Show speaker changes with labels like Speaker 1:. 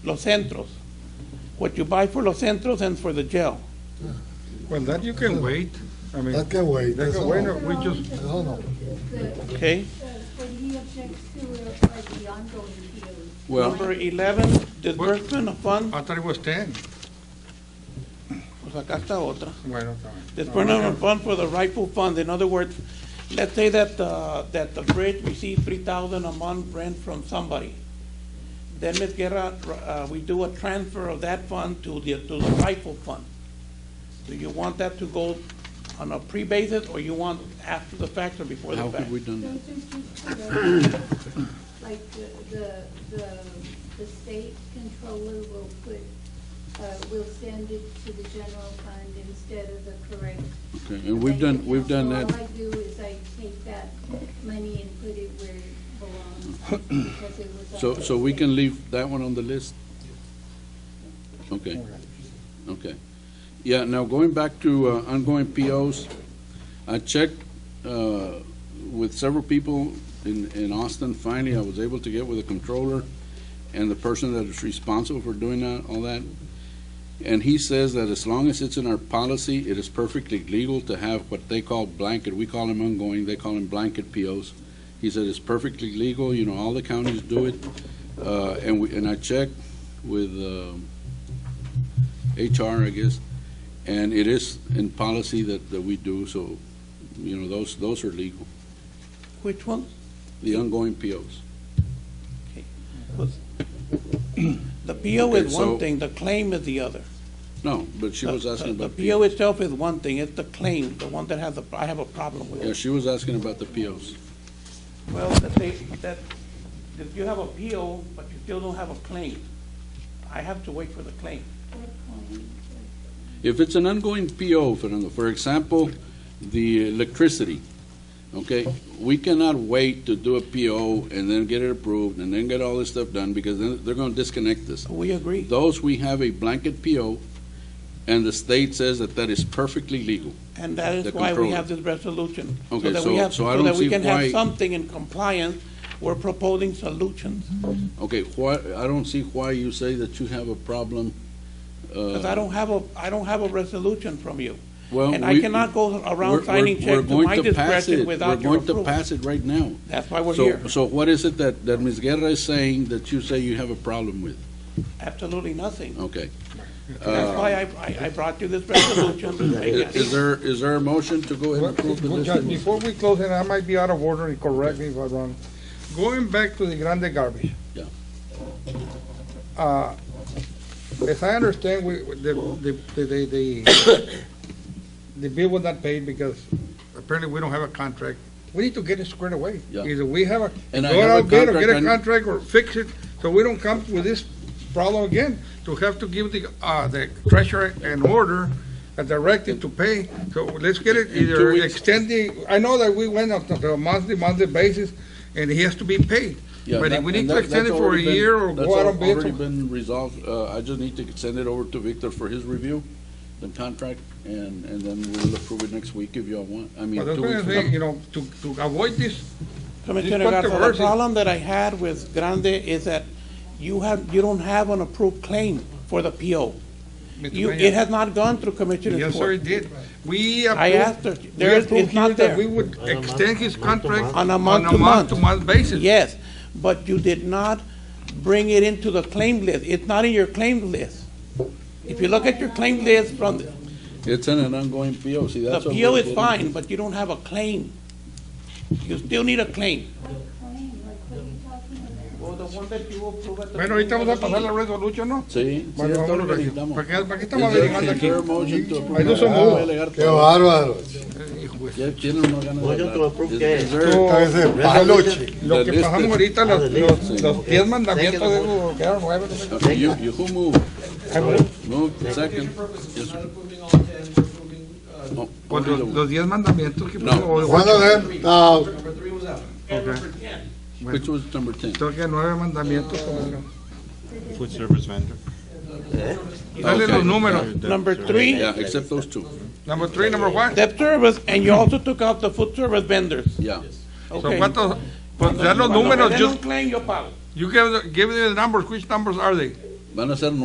Speaker 1: los centros. What you buy for los centros and for the jail.
Speaker 2: Well, that you can wait. I mean,
Speaker 3: That can wait.
Speaker 2: That can wait, or we just,
Speaker 3: I don't know.
Speaker 1: Okay.
Speaker 4: What he objects to are are the ongoing POs.
Speaker 5: Well,
Speaker 1: Number 11, disbursement of funds.
Speaker 2: I thought it was ten.
Speaker 1: Pues acá está otra.
Speaker 2: Bueno, está bien.
Speaker 1: Disbursement of fund for the rightful fund. In other words, let's say that, uh, that the bridge received 3,000 a month rent from somebody. Then, Ms. Guerra, uh, we do a transfer of that fund to the, to the rightful fund. Do you want that to go on a pre-basis, or you want after the fact or before the
Speaker 5: how
Speaker 1: fact?
Speaker 5: could we done that?
Speaker 4: Those are just the- Like the, the, the, the state controller will put, uh, will send it to the general fund instead of the correct.
Speaker 5: Okay, and we've done, we've done
Speaker 4: bank account.
Speaker 5: that,
Speaker 4: All I do is I take that money and put it where it belongs because it was.
Speaker 5: so,
Speaker 4: on
Speaker 5: so
Speaker 4: the
Speaker 5: we
Speaker 4: state.
Speaker 5: can leave that one on the list? Okay, okay. Yeah, now going back to uh, ongoing POs, I checked uh, with several people in, in Austin. Finally, I was able to get with the controller and the person that is responsible for doing that, all that. And he says that as long as it's in our policy, it is perfectly legal to have what they call blanket, we call them ongoing, they call them blanket POs. He said it's perfectly legal, you know, all the counties do it. Uh, and we, and I checked with, um, HR, I guess, and it is in policy that, that we do, so, you know, those, those are legal,
Speaker 1: Which one?
Speaker 5: the ongoing POs.
Speaker 1: The PO is
Speaker 5: Okay,
Speaker 1: one
Speaker 5: so-
Speaker 1: thing, the claim is the other.
Speaker 5: No, but she was
Speaker 1: The-
Speaker 5: asking
Speaker 1: the-
Speaker 5: about
Speaker 1: The PO
Speaker 5: POs.
Speaker 1: itself is one thing, it's the claim, the one that has a, I have a problem with.
Speaker 5: Yeah, she was asking about the POs.
Speaker 1: Well, that they, that, if you have a PO, but you still don't have a claim, I have to wait for the claim.
Speaker 5: If it's an ongoing PO, Fernando, for example, the electricity, okay? We cannot wait to do a PO and then get it approved and then get all this stuff done because then they're gonna disconnect us.
Speaker 1: We agree.
Speaker 5: Those, we have a blanket PO and the state says that that is perfectly legal.
Speaker 1: And that is
Speaker 5: The
Speaker 1: why we
Speaker 5: controller.
Speaker 1: have this resolution.
Speaker 5: Okay,
Speaker 1: that
Speaker 5: so-
Speaker 1: we have-
Speaker 5: so I
Speaker 1: So that
Speaker 5: don't
Speaker 1: we
Speaker 5: see
Speaker 1: can
Speaker 5: why-
Speaker 1: have something in compliance, we're proposing solutions.
Speaker 5: Okay, why, I don't see why you say that you have a problem. Uh,
Speaker 1: Because I don't have a, I don't have a resolution from you.
Speaker 5: Well,
Speaker 1: And I
Speaker 5: we-
Speaker 1: cannot go
Speaker 5: We're-
Speaker 1: around signing
Speaker 5: we're-
Speaker 1: checks
Speaker 5: we're
Speaker 1: to
Speaker 5: going
Speaker 1: my
Speaker 5: to pass
Speaker 1: discretion
Speaker 5: it.
Speaker 1: without your
Speaker 5: We're going to
Speaker 1: approval.
Speaker 5: pass it right now.
Speaker 1: That's why we're
Speaker 5: So-
Speaker 1: here.
Speaker 5: So what is it that, that Ms. Guerra is saying that you say you have a problem with?
Speaker 1: Absolutely nothing.
Speaker 5: Okay. uh,
Speaker 1: That's why I, I I brought you this resolution. to make
Speaker 5: Is
Speaker 1: it
Speaker 5: is there, is there a motion to go ahead
Speaker 2: Well,
Speaker 5: and approve the
Speaker 2: well,
Speaker 5: list?
Speaker 2: Judge, uh, Before we close, and I might be out of order, and correct me if I'm wrong. Going back to the Grande garbage.
Speaker 5: Yeah.
Speaker 2: Uh, As I understand, we, the, the, the, the, the bill was not paid because apparently we don't have a contract. We need to get it squared away.
Speaker 5: Yeah.
Speaker 2: Either we have a,
Speaker 5: And
Speaker 2: go
Speaker 5: I have a
Speaker 2: out bid or get a
Speaker 5: contract, and-
Speaker 2: contract or fix it, so we don't come with this problem again. To have to give the, uh, the treasurer an order, a directive to pay, so let's get it
Speaker 5: In two
Speaker 2: either
Speaker 5: weeks.
Speaker 2: extending, I know that we went up to a monthly, monthly basis, and he has to be paid.
Speaker 5: Yeah,
Speaker 2: But
Speaker 5: that-
Speaker 2: if we need
Speaker 5: and
Speaker 2: to
Speaker 5: that-
Speaker 2: extend it
Speaker 5: that's
Speaker 2: for a
Speaker 5: already been-
Speaker 2: year or
Speaker 5: that's
Speaker 2: go out on
Speaker 5: al-
Speaker 2: bid,
Speaker 5: already
Speaker 2: so-
Speaker 5: been resolved. Uh, I just need to send it over to Victor for his review, the contract, and, and then we'll approve it next week if y'all want. I mean,
Speaker 2: but that's
Speaker 5: two
Speaker 2: what I'm
Speaker 5: weeks.
Speaker 2: saying, you know, to, to avoid this,
Speaker 1: Commissioner
Speaker 2: It's
Speaker 1: Garza, the
Speaker 2: controversial.
Speaker 1: problem that I had with Grande is that you have, you don't have an approved claim for the PO.
Speaker 2: Mr.
Speaker 1: You,
Speaker 2: Mayor.
Speaker 1: it has not gone through Commissioner's
Speaker 2: Yes, sir,
Speaker 1: court.
Speaker 2: it did. We approved.
Speaker 1: I asked her,
Speaker 2: we
Speaker 1: there is,
Speaker 2: approved
Speaker 1: it's not
Speaker 2: here that We
Speaker 1: there.
Speaker 2: would extend his contract.
Speaker 1: On a month to month.
Speaker 2: month-to-month basis.
Speaker 1: Yes, but you did not bring it into the claim list. It's not in your claim list. If you look at your claim list from, the
Speaker 5: It's in an ongoing PO, see,
Speaker 1: the
Speaker 5: that's. what
Speaker 1: PO
Speaker 5: we're
Speaker 1: is
Speaker 5: getting-
Speaker 1: fine, but you don't have a claim. You still need a claim.
Speaker 4: Claim, like what are you talking about?
Speaker 1: Well, the one that you approve at the
Speaker 2: Bueno, ahorita
Speaker 1: beginning
Speaker 2: vamos a
Speaker 1: of the
Speaker 2: pasar la resolución, ¿no?
Speaker 5: Sí, sí,
Speaker 2: Bueno,
Speaker 5: es todo lo que
Speaker 2: vámonos,
Speaker 5: necesitamos.
Speaker 2: porque aquí
Speaker 5: Is
Speaker 2: estamos
Speaker 5: there-
Speaker 2: averiguando
Speaker 5: is
Speaker 2: aquí.
Speaker 5: there a motion to approve?
Speaker 2: Ahí no se
Speaker 5: Ah,
Speaker 2: movió.
Speaker 5: voy a alegar
Speaker 3: Qué
Speaker 5: todo.
Speaker 3: bárbaro.
Speaker 2: Eh, hijo de-
Speaker 5: Ya tienen unas ganas de
Speaker 6: Motion to
Speaker 5: hablar.
Speaker 6: approve
Speaker 5: Is-
Speaker 6: qué?
Speaker 5: is there-
Speaker 2: Tú-
Speaker 3: Está ese palo, chico.
Speaker 2: Lo que
Speaker 5: Listed.
Speaker 2: pasamos ahorita,
Speaker 6: Ah,
Speaker 2: los,
Speaker 6: de
Speaker 2: los,
Speaker 6: listed.
Speaker 2: los diez mandamientos de
Speaker 6: Second.
Speaker 2: Hugo, quedaron nueve. ¿no?
Speaker 5: Okay, you, you who moved? Moved,
Speaker 7: Your
Speaker 5: second.
Speaker 7: purpose
Speaker 5: Yes,
Speaker 7: is
Speaker 5: sir.
Speaker 7: not approving all ten, we're approving, uh,
Speaker 5: Oh,
Speaker 2: Pues
Speaker 5: only
Speaker 2: los,
Speaker 5: the-
Speaker 2: los diez mandamientos que
Speaker 5: No.
Speaker 2: puso.
Speaker 3: One of them, uh,
Speaker 7: number three was out.
Speaker 2: Okay.
Speaker 5: Which was number ten?
Speaker 2: Tengo que nueve mandamientos. como-
Speaker 8: Food service vendor.
Speaker 2: Dale
Speaker 5: Okay.
Speaker 2: los números.
Speaker 1: Number three.
Speaker 5: Yeah, except those two,
Speaker 2: Number three, number one.
Speaker 1: Debt service, and you also took out the food service vendors.
Speaker 5: yeah.
Speaker 2: So
Speaker 1: Okay.
Speaker 2: cuántos, pues ya los
Speaker 1: Cuando me
Speaker 2: números,
Speaker 1: den
Speaker 2: yo,
Speaker 1: un claim, yo pago.
Speaker 2: you give, the- give me the numbers, which numbers are they?
Speaker 5: Van a ser